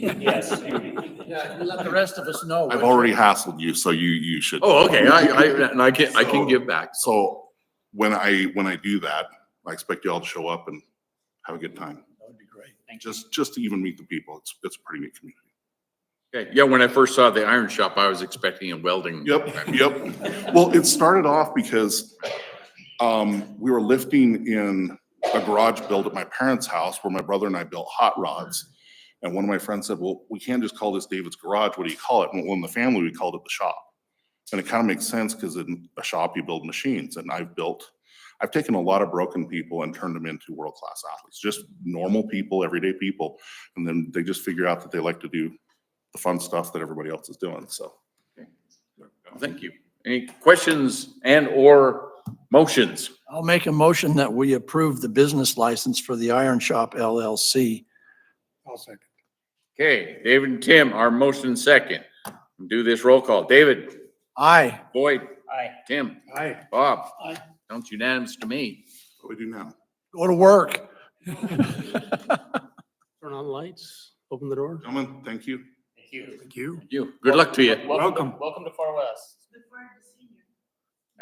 Yes. Yeah, you let the rest of us know. I've already hassled you, so you, you should. Oh, okay, I, I, and I can, I can give back. So when I, when I do that, I expect y'all to show up and have a good time. That would be great. Just, just to even meet the people. It's, it's a pretty neat community. Okay, yeah, when I first saw the iron shop, I was expecting a welding. Yep, yep. Well, it started off because um, we were lifting in a garage build at my parents' house where my brother and I built hot rods. And one of my friends said, well, we can't just call this David's Garage. What do you call it? And well, in the family, we called it the shop. And it kind of makes sense because in a shop, you build machines and I've built, I've taken a lot of broken people and turned them into world-class athletes, just normal people, everyday people. And then they just figure out that they like to do the fun stuff that everybody else is doing. So. Thank you. Any questions and or motions? I'll make a motion that we approve the business license for the Iron Shop LLC. I'll second. Okay, David and Tim, our motion second. Do this roll call. David, Aye. Boyd, Aye. Tim, Aye. Bob. Aye. Sounds unanimous to me. What do we do now? Go to work. Turn on the lights, open the door. Gentlemen, thank you. Thank you. Thank you. You, good luck to you. Welcome, welcome to Far West. Make-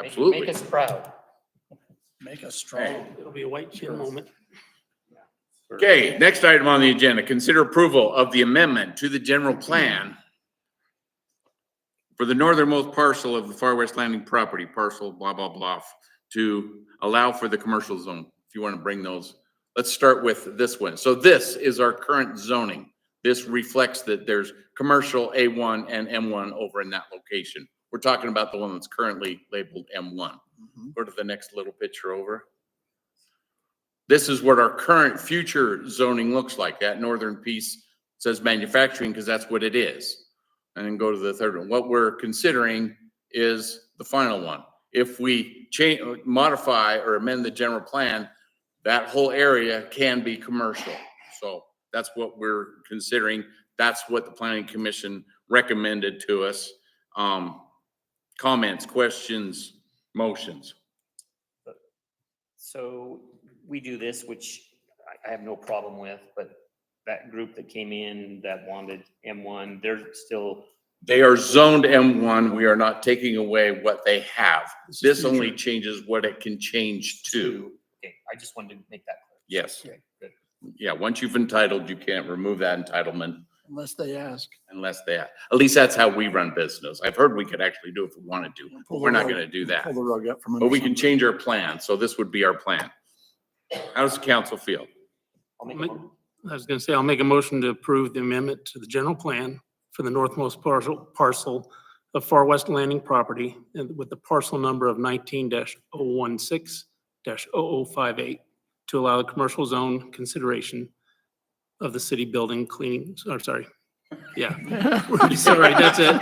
Make Absolutely. us proud. Make us strong. It'll be a white chin moment. Okay, next item on the agenda, consider approval of the amendment to the general plan for the northernmost parcel of the Far West Landing property, parcel blah, blah, blah, to allow for the commercial zone. If you want to bring those, let's start with this one. So this is our current zoning. This reflects that there's commercial A1 and M1 over in that location. We're talking about the one that's currently labeled M1. Mm-hmm. Go to the next little picture over. This is what our current future zoning looks like. That northern piece says manufacturing because that's what it is. And then go to the third one. What we're considering is the final one. If we change, modify or amend the general plan, that whole area can be commercial. So that's what we're considering. That's what the planning commission recommended to us. Um, comments, questions, motions? So we do this, which I- I have no problem with, but that group that came in that wanted M1, they're still, They are zoned M1. We are not taking away what they have. is This only changes what it can change to. okay, I just wanted to make that clear. Yes. Okay, good. Yeah, once you've entitled, you can't remove that entitlement Unless they ask. unless they, at least that's how we run business. I've heard we could actually do if we wanted to, but we're not gonna do that. Pull the rug up from under. But we can somebody. change our plan, so this would be our plan. How does the council feel? I'll make a Make- mo- I was gonna say, I'll make a motion to approve the amendment to the general plan for the northmost parcel, parcel of Far West Landing property and with the parcel number of nineteen oh 16 5 oh to allow the commercial zone consideration of the city building cleaning, I'm sorry. Yeah, sorry, that's it.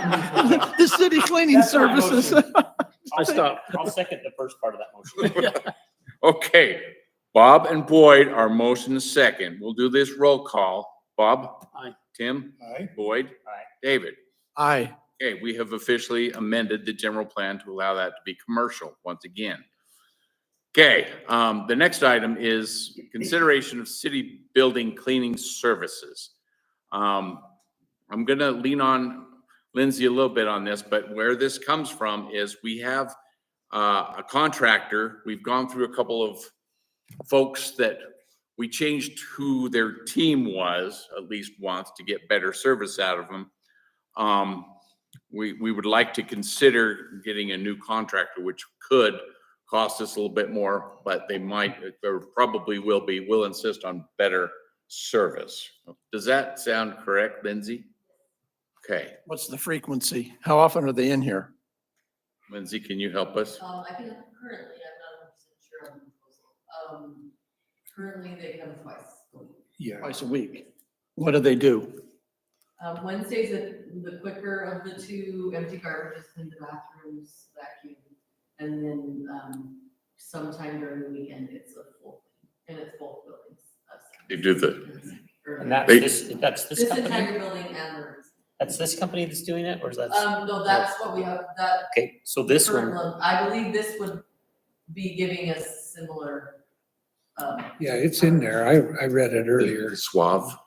The city cleaning That's my services. motion. I stopped. I'll second the first part of that motion. Okay, Bob and Boyd are motion is second. We'll do this roll call. Bob? Aye. Tim? Aye. Boyd? Aye. David? Aye. Okay, we have officially amended the general plan to allow that to be commercial once again. Okay, um, the next item is consideration of city building cleaning services. Um, I'm gonna lean on Lindsay a little bit on this, but where this comes from is we have uh, a contractor, we've gone through a couple of folks that we changed who their team was, at least once, to get better service out of them. Um, we, we would like to consider getting a new contractor, which could cost us a little bit more, but they might, or probably will be, will insist on better service. Does that sound correct, Lindsay? Okay, What's the frequency? How often are they in here? Lindsay, can you help us? Um, I think currently, I'm not hundred percent sure on the proposal. Um, currently, they come twice. Yeah. Twice a week. What do they do? Um, Wednesday's the, the quicker of the two, empty garbage in the bathrooms, vacuum. And then, um, sometime during the weekend, it's a full, and it's both buildings. uh, They do the, And that's They- this, that's This this company, entire building and the, that's this company that's doing it, or is that? um, no, that's what we have, that. Okay, so this current one, one, I believe this would be giving us similar, um, Yeah, it's in there. I, I read it earlier. the suave,